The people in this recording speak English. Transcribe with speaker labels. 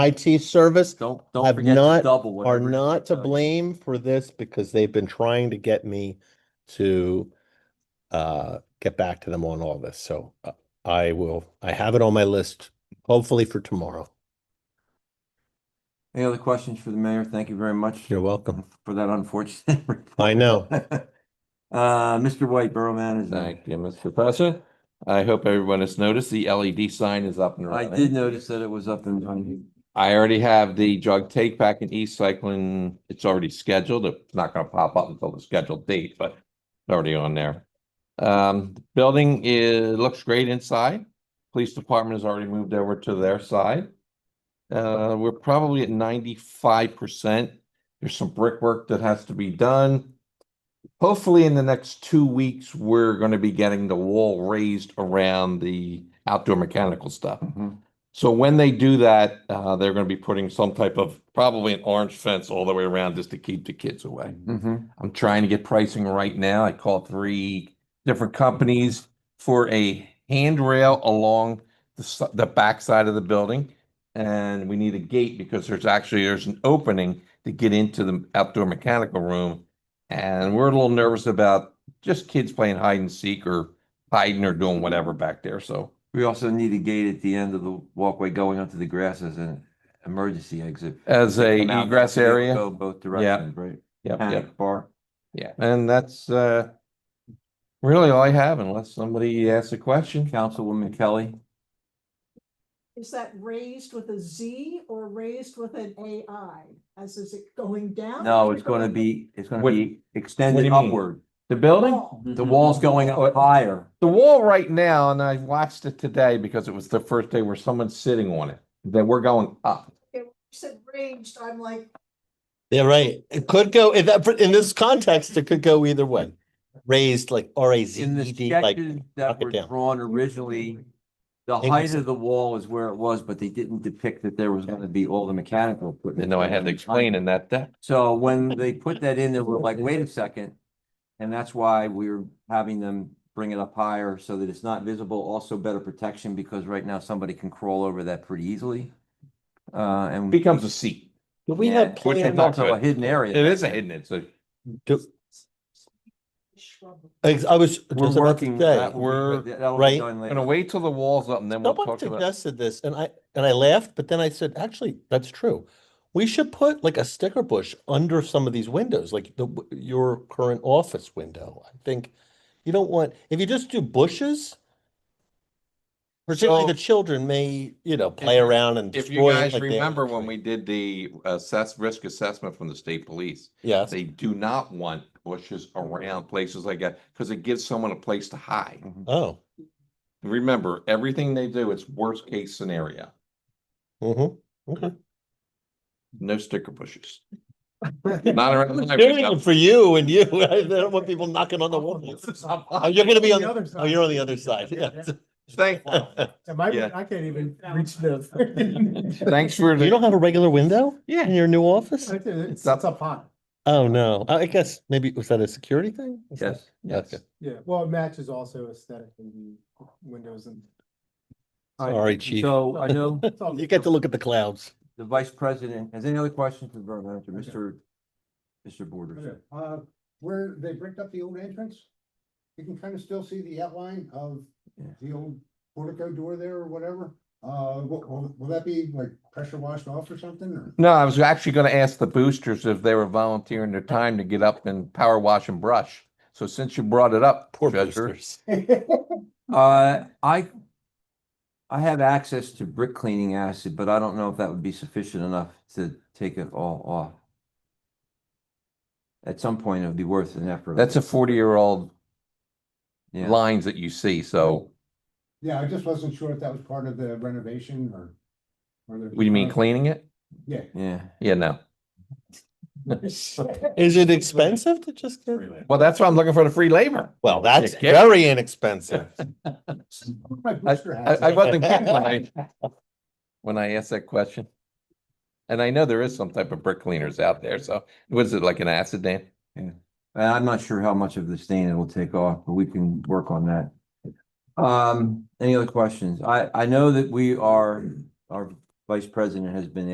Speaker 1: IT service
Speaker 2: Don't, don't
Speaker 1: I've
Speaker 2: forget to
Speaker 1: not-
Speaker 2: double
Speaker 1: are
Speaker 2: whatever.
Speaker 1: not to
Speaker 2: does.
Speaker 1: blame for this because they've been trying to get me to uh, get back to them on all this. So uh, I will, I have it on my list, hopefully for tomorrow.
Speaker 2: Any other questions for the mayor? Thank you very much
Speaker 1: You're welcome.
Speaker 2: for that unfortunate. report.
Speaker 1: I know.
Speaker 2: Uh, Mr. White, Borough Manager.
Speaker 3: Thank you, Mr. Pasha. I hope everyone has noticed the LED sign is up and
Speaker 2: I
Speaker 3: running.
Speaker 2: did notice that it was up and running.
Speaker 3: I already have the drug take back in East Cycling. It's already scheduled. It's not gonna pop up until the scheduled date, but it's already on there. Um, the building is, looks great inside. Police department has already moved over to their side. Uh, we're probably at ninety-five percent. There's some brickwork that has to be done. Hopefully, in the next two weeks, we're gonna be getting the wall raised around the outdoor mechanical stuff. So when they do that, uh, they're gonna be putting some type of, probably an orange fence all the way around just to keep the kids away.
Speaker 2: Mhm.
Speaker 3: I'm trying to get pricing right now. I called three different companies for a handrail along the, s- the backside of the building. And we need a gate because there's actually, there's an opening to get into the outdoor mechanical room. And we're a little nervous about just kids playing hide and seek or hiding or doing whatever back there, so.
Speaker 2: We also need a gate at the end of the walkway going onto the grass as an emergency exit.
Speaker 3: As a
Speaker 2: Come out,
Speaker 3: egress
Speaker 2: they
Speaker 3: area.
Speaker 2: Go both directions, right?
Speaker 3: Yep, yep.
Speaker 2: Panic bar.
Speaker 3: Yeah, Uh, and that's uh really all I have unless somebody asks a question.
Speaker 2: Councilwoman Kelly,
Speaker 4: Is that raised with a Z or raised with an AI? As is it going down?
Speaker 2: no, it's gonna be, it's gonna
Speaker 3: What-
Speaker 2: be
Speaker 3: what do
Speaker 2: extended
Speaker 3: you mean? Mm-hmm.
Speaker 2: upward.
Speaker 3: The building,
Speaker 4: Oh,
Speaker 2: The wall's going up higher.
Speaker 3: the wall right now, and I watched it today because it was the first day where someone's sitting on it, that we're going up.
Speaker 4: okay, when you said ranged, I'm like,
Speaker 1: Yeah, right. It could go, in that, in this context, it could go either way. Raised like R A Z
Speaker 2: In the
Speaker 1: E D, like,
Speaker 2: sketches that
Speaker 1: knock it
Speaker 2: were
Speaker 1: down.
Speaker 2: drawn originally, the
Speaker 1: Increase
Speaker 2: height
Speaker 1: it.
Speaker 2: of the wall is where it was, but they didn't depict that there was gonna be all the mechanical equipment.
Speaker 3: Didn't know I had to explain in that depth.
Speaker 2: So when they put that in, they were like, wait a second. And that's why we're having them bring it up higher so that it's not visible, also better protection, because right now somebody can crawl over that pretty easily. Uh, and.
Speaker 3: Becomes a seat.
Speaker 1: do we
Speaker 2: Yeah,
Speaker 1: have
Speaker 2: and It's
Speaker 1: plans?
Speaker 3: not
Speaker 2: also a
Speaker 3: good.
Speaker 2: hidden area.
Speaker 3: It is a hidden, it's a,
Speaker 1: Do-
Speaker 4: shrub.
Speaker 1: ex- I was.
Speaker 2: We're
Speaker 1: just about to
Speaker 2: working.
Speaker 1: say,
Speaker 2: that will be-
Speaker 3: We're-
Speaker 2: that'll be
Speaker 1: right.
Speaker 2: done later.
Speaker 3: gonna wait till the wall's up and then we'll
Speaker 1: Someone
Speaker 3: talk about.
Speaker 1: suggested this and I, and I laughed, but then I said, actually, that's true. We should put like a sticker bush under some of these windows, like the, w- your current office window. I think you don't want, if you just do bushes, particularly
Speaker 3: So-
Speaker 1: the children may, you know, play
Speaker 3: you-
Speaker 1: around and
Speaker 3: If you
Speaker 1: destroy it
Speaker 3: guys
Speaker 1: like they
Speaker 3: remember
Speaker 1: always
Speaker 3: when
Speaker 1: do.
Speaker 3: we did the assess, risk assessment from the state police,
Speaker 1: Yes,
Speaker 3: they do not want bushes around places like that because it gives someone a place to hide.
Speaker 2: Mhm.
Speaker 1: oh,
Speaker 3: Remember, everything they do, it's worst case scenario,
Speaker 1: mhm, okay.
Speaker 3: no sticker bushes. Not around.
Speaker 1: I'm
Speaker 3: my
Speaker 1: doing it
Speaker 3: window.
Speaker 1: for you and you, I don't want people knocking on the walls. Oh, you're gonna be on, the-
Speaker 5: other
Speaker 1: oh, you're on the other side, yeah.
Speaker 3: Thank-
Speaker 5: Am I,
Speaker 3: Yeah.
Speaker 5: I can't even reach the.
Speaker 3: Thanks for
Speaker 1: You
Speaker 3: the,
Speaker 1: don't have a regular window in
Speaker 3: yeah,
Speaker 1: your new office?
Speaker 5: It's, it's
Speaker 3: up.
Speaker 5: up high.
Speaker 1: Oh, no. I I guess maybe, was that a security thing? Was that-
Speaker 3: yes, yes.
Speaker 1: Okay.
Speaker 5: Yeah, well, it matches also aesthetic and windows and.
Speaker 2: All right,
Speaker 1: Sorry, chief.
Speaker 2: So I know
Speaker 5: it's all-
Speaker 1: You get to look at the clouds.
Speaker 2: the vice president, has any other questions for the borough manager, Mr. Mr. Borders?
Speaker 6: Okay, Uh, where they bricked up the old entrance, you can kind of still see the outline of
Speaker 2: Yeah.
Speaker 6: the old portico door there or whatever. Uh, will, will- will that be like pressure washed off or something or?
Speaker 3: No, I was actually gonna ask the boosters if they were volunteering their time to get up and power wash and brush. So since you brought it up,
Speaker 1: Poor
Speaker 3: Treasurer,
Speaker 1: boosters.
Speaker 2: Uh, I, I have access to brick cleaning acid, but I don't know if that would be sufficient enough to take it all off. At some point, it'd be worth an effort.
Speaker 3: that's a forty-year-old
Speaker 2: Yeah.
Speaker 3: lines that you see, so,
Speaker 6: Yeah, I just wasn't sure if that was part of the renovation or. or the-
Speaker 3: what do you mean cleaning it?
Speaker 6: Yeah.
Speaker 2: Yeah.
Speaker 3: Yeah, no.
Speaker 1: Is it expensive to just get?
Speaker 3: Well, that's why I'm looking for the free labor.
Speaker 1: Well, that's
Speaker 3: kidding.
Speaker 1: very inexpensive.
Speaker 6: My
Speaker 3: I,
Speaker 6: booster
Speaker 3: I,
Speaker 6: hats
Speaker 3: I
Speaker 6: are-
Speaker 3: wasn't kidding when I, when I asked that question. And I know there is some type of brick cleaners out there, so what is it, like an acid dam?
Speaker 2: And I'm not sure how much of the stain it'll take off, but we can work on that. Um, any other questions? I, I know that we are, our vice president has been